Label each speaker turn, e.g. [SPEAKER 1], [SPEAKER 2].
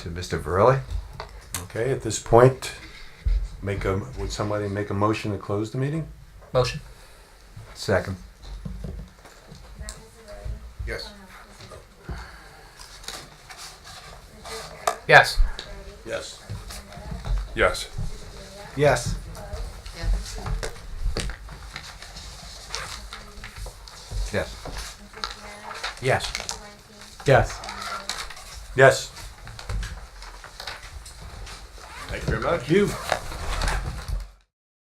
[SPEAKER 1] to Mr. Verley.
[SPEAKER 2] Okay, at this point, make a, would somebody make a motion to close the meeting?
[SPEAKER 3] Motion.
[SPEAKER 1] Second.
[SPEAKER 4] Yes.
[SPEAKER 3] Yes.
[SPEAKER 4] Yes. Yes.
[SPEAKER 1] Yes. Yes.
[SPEAKER 3] Yes.
[SPEAKER 2] Yes. Yes.
[SPEAKER 4] Thank you very much.
[SPEAKER 2] You.